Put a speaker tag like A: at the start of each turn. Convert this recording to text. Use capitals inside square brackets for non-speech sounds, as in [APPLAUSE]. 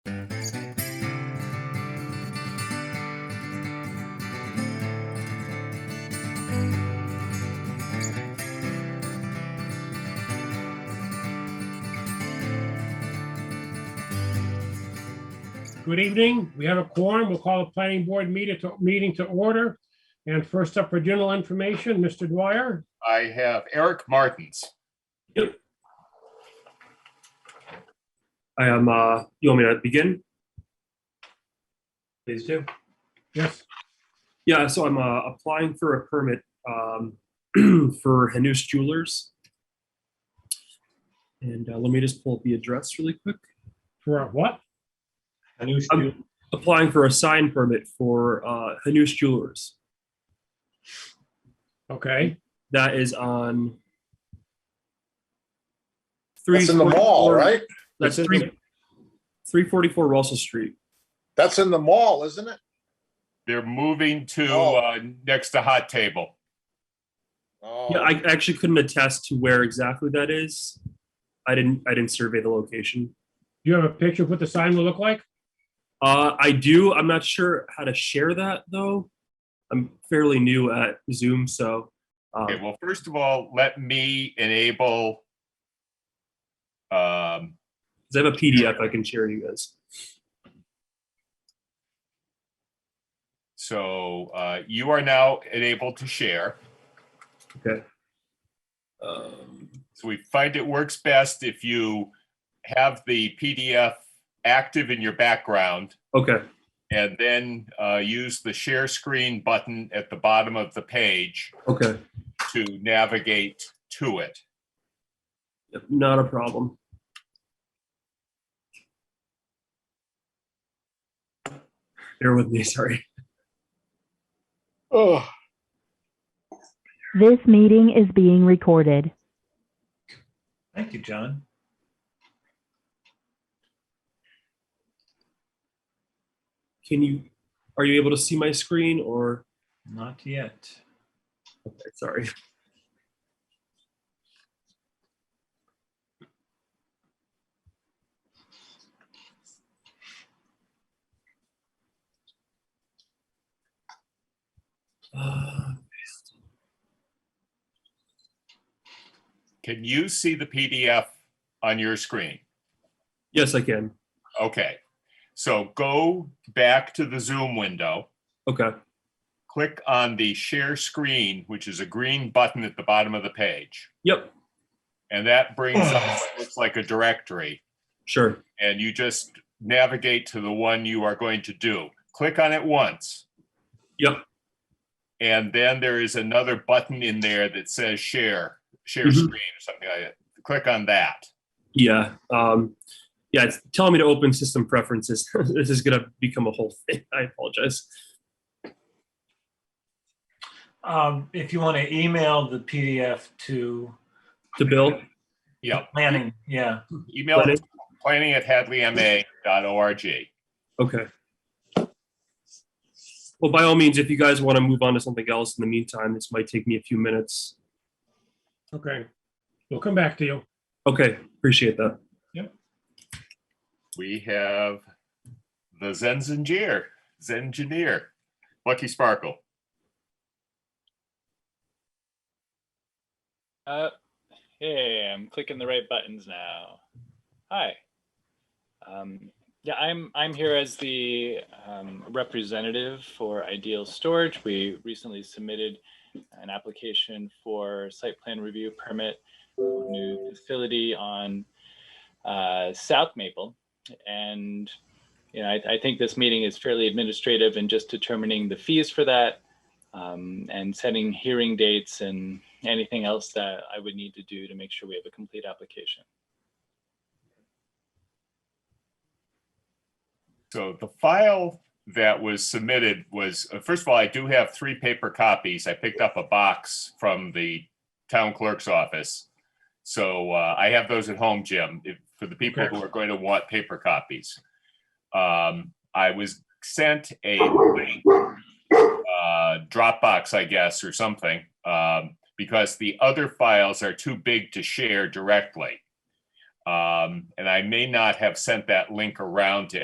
A: Good evening. We have a quorum. We'll call a planning board meeting to, meeting to order. And first up for general information, Mr. Dwyer.
B: I have Eric Martins.
C: I am, uh, you want me to begin? Please do.
A: Yes,
C: Yeah, so I'm uh, applying for a permit um, [CLEARS THROAT] for Hanous Jewelers. And uh, let me just pull up the address really quick.
A: for what?
C: I'm applying for a sign permit for uh, Hanous Jewelers.
A: Okay,
C: That is on.
D: That's in the mall,
C: 344
D: right?
C: That's
D: It's in
C: three, three forty-four Russell Street.
D: That's in the mall, isn't it?
B: They're moving to,
D: Oh.
B: uh, next to Hot Table.
D: Oh,
C: Yeah, I actually couldn't attest to where exactly that is. I didn't, I didn't survey the location.
A: do you have a picture of what the sign will look like?
C: Uh, I do. I'm not sure how to share that though. I'm fairly new at Zoom, so um,
B: Okay, well, first of all, let me enable um,
C: 'cause I have a PDF I can share you guys.
B: so, uh, you are now enabled to share.
C: Um,
B: So we find it works best if you have the PDF active in your background
C: okay,
B: and then, uh, use the share screen button at the bottom of the page
C: okay,
B: to navigate to it.
C: Yep, not a problem. Bear with me, sorry.
B: Oh.
E: This meeting is being recorded.
F: Thank you, John.
C: Can you? Are you able to see my screen or?
F: Not yet.
C: Okay, sorry. Uh,
B: Can you see the PDF on your screen?
C: [SIGHS] yes, I can.
B: Okay. So go back to the Zoom window,
C: Okay.
B: click on the share screen, which is a green button at the bottom of the page.
C: Yep.
B: And that brings up what looks like a directory.
C: Sure.
B: And you just navigate to the one you are going to do. Click on it once.
C: Yep.
B: And then there is another button in there that says share, share
C: Mhm.
B: screen or something like that. Click on that.
C: Yeah. Um, yeah. It's telling me to open system preferences. [LAUGHS] this is gonna become a whole thing. [LAUGHS] I apologize.
F: Um, if you want to email the PDF to
C: To Bill.
B: Yeah.
F: planning, yeah,
B: Email it
C: Planning.
B: to planning at hadleyma.org.
C: Okay. Well, by all means, if you guys want to move on to something else in the meantime, this might take me a few minutes.
A: Okay, we'll come back to you.
C: Okay, appreciate that.
B: We have the Zenzinger, Zengineer, Lucky Sparkle.
G: Uh, hey, I'm clicking the right buttons now. Hi. Um, yeah, I'm I'm here as the um, representative for Ideal Storage. We recently submitted an application for site plan review permit, for a new facility on uh, South Maple, and you know I, I think this meeting is fairly administrative and just determining the fees for that um, and setting hearing dates and anything else that I would need to do to make sure we have a complete application.
B: So the file that was submitted was, uh, first of all, I do have three paper copies. I picked up a box from the town clerk's office. So uh, I have those at home, Jim, if- for the people who are going to want paper copies. Um, I was sent a link, uh, Dropbox, I guess, or something, um, because the other files are too big to share directly. Um, And I may not have sent that link around to